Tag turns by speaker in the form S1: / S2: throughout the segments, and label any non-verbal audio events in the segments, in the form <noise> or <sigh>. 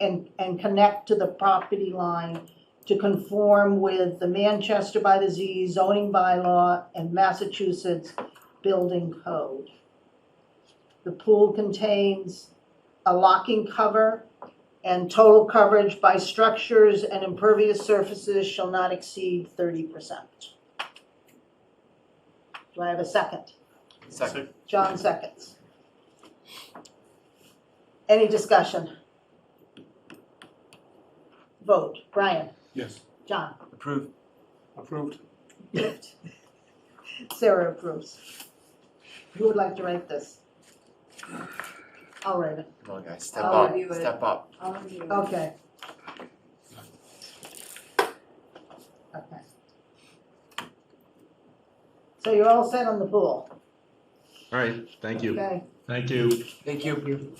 S1: and, and connect to the property line to conform with the Manchester by the Z zoning bylaw and Massachusetts building code. The pool contains a locking cover and total coverage by structures and impervious surfaces shall not exceed thirty percent. Do I have a second?
S2: Second.
S1: John seconds. Any discussion? Vote, Brian,
S2: Yes.
S1: John,
S2: Approved. Approved.
S1: approved. Sarah approves. Who would like to write this? I'll write it,
S2: Come on, guys, step
S1: I'll
S2: up,
S3: review it.
S2: step up.
S3: All of you.
S1: okay. Okay. So you're all set on the pool,
S4: All right, thank you.
S1: okay?
S5: Thank you.
S2: Thank you.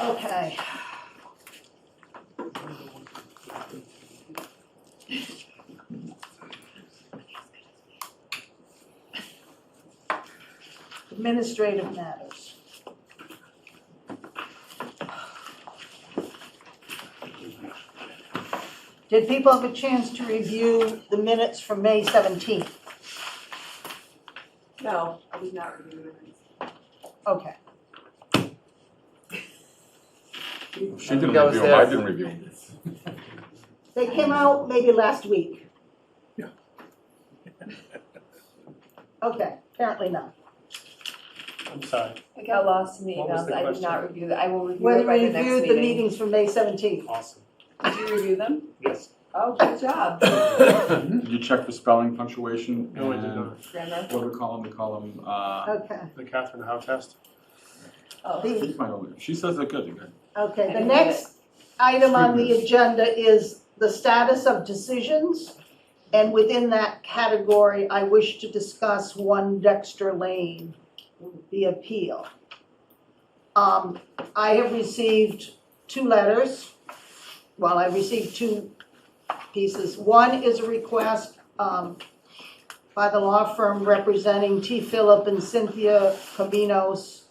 S1: Okay. Administrative matters. Did people have a chance to review the minutes from May 17th?
S3: No, I did not review the minutes.
S1: Okay,
S4: She didn't
S2: That was
S4: review 'em, I
S2: theirs.
S4: didn't review 'em.
S1: they came out maybe last week.
S5: Yeah.
S1: Okay, apparently not.
S6: I'm sorry,
S3: I got lost in the
S6: What was
S3: emails,
S6: the
S3: I did not review that, I will review
S1: When
S3: it by
S1: we
S3: the next
S1: reviewed the
S3: meeting.
S1: meetings from May 17th.
S6: awesome,
S3: Did you review them?
S6: yes.
S3: Oh, good job,
S4: Did you check for spelling, punctuation?
S6: No, I did
S4: and
S3: Um,
S6: not,
S3: grammar.
S4: Order column, the column, uh,
S1: Okay,
S6: the Catherine Howe test.
S3: Oh,
S4: I
S1: the,
S4: think my only, she says they're good, they're good.
S1: okay,
S3: I
S1: the
S3: did
S1: next item on the agenda is the status of decisions. And within that category, I wish to discuss one Dexter Lane, the appeal. Um, I have received two letters. Well, I received two pieces. One is a request, um, by the law firm representing T. Philip and Cynthia Cabinos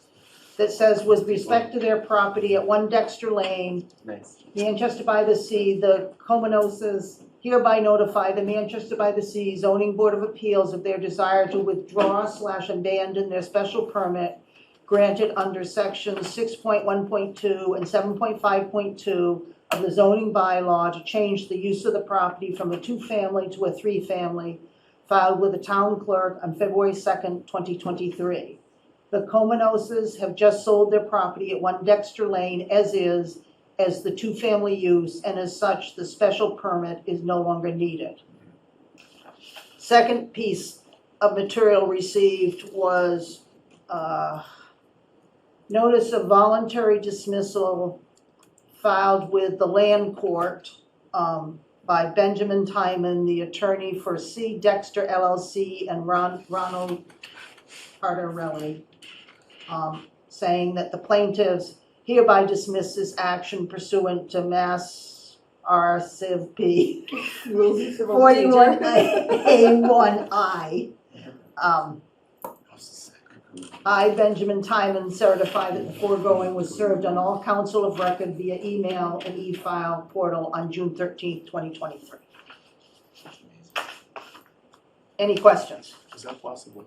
S1: that says with respect to their property at One Dexter Lane,
S2: Nice.
S1: Manchester by the Sea, the Comanoses hereby notify the Manchester by the Sea zoning board of appeals of their desire to withdraw slash abandon their special permit granted under sections six point one point two and seven point five point two of the zoning bylaw to change the use of the property from a two-family to a three-family filed with the town clerk on February second, twenty twenty-three. The Comanoses have just sold their property at One Dexter Lane as is as the two-family use, and as such, the special permit is no longer needed. Second piece of material received was, uh, notice of voluntary dismissal filed with the land court, um, by Benjamin Timon, the attorney for C. Dexter LLC and Ron, Ronald Cardarelli, um, saying that the plaintiffs hereby dismiss this action pursuant to Mass R. Civ P.
S3: rules of civil procedure.
S1: Forty-one A one I. Um, I, Benjamin Timon, certify that the foregoing was served on all council of record via email and e-file portal on June thirteenth, twenty twenty-three. Any questions?
S6: Was that Blossom Lane,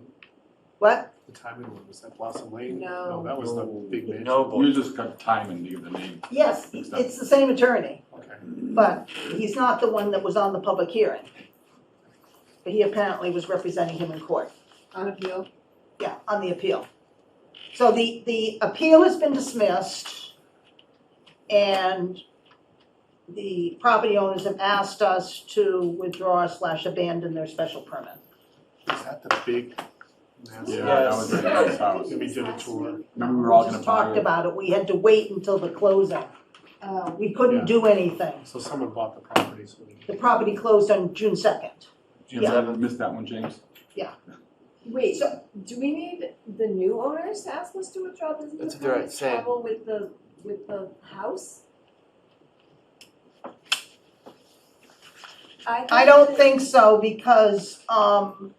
S1: What?
S6: the timing one, was that Blossom Lane?
S3: No.
S6: No, that was the big man.
S2: No,
S4: You
S2: boy.
S4: just got time and give the name.
S1: Yes, it's the same attorney,
S6: Okay,
S1: but he's not the one that was on the public hearing. But he apparently was representing him in court.
S3: <laughs> On appeal,
S1: Yeah, on the appeal. So the, the appeal has been dismissed, and the property owners have asked us to withdraw slash abandon their special permit.
S6: was that the big man?
S4: Yeah, that was
S2: Yes.
S4: a nice house.
S6: And we did a tour,
S4: Remember, we were all
S1: We
S4: gonna
S1: just talked
S4: buy it.
S1: about it, we had to wait until the closing.
S3: oh,
S1: We couldn't
S6: Yeah.
S1: do anything.
S6: so someone bought the property, so we.
S1: The property closed on June second.
S4: Jim,
S1: Yeah.
S4: I missed that one, James.
S3: wait,
S1: So-
S3: do we need the new owners to ask us to withdraw this?
S2: That's what they're saying.
S3: Trouble with the, with the house?
S1: I don't think so, because, um,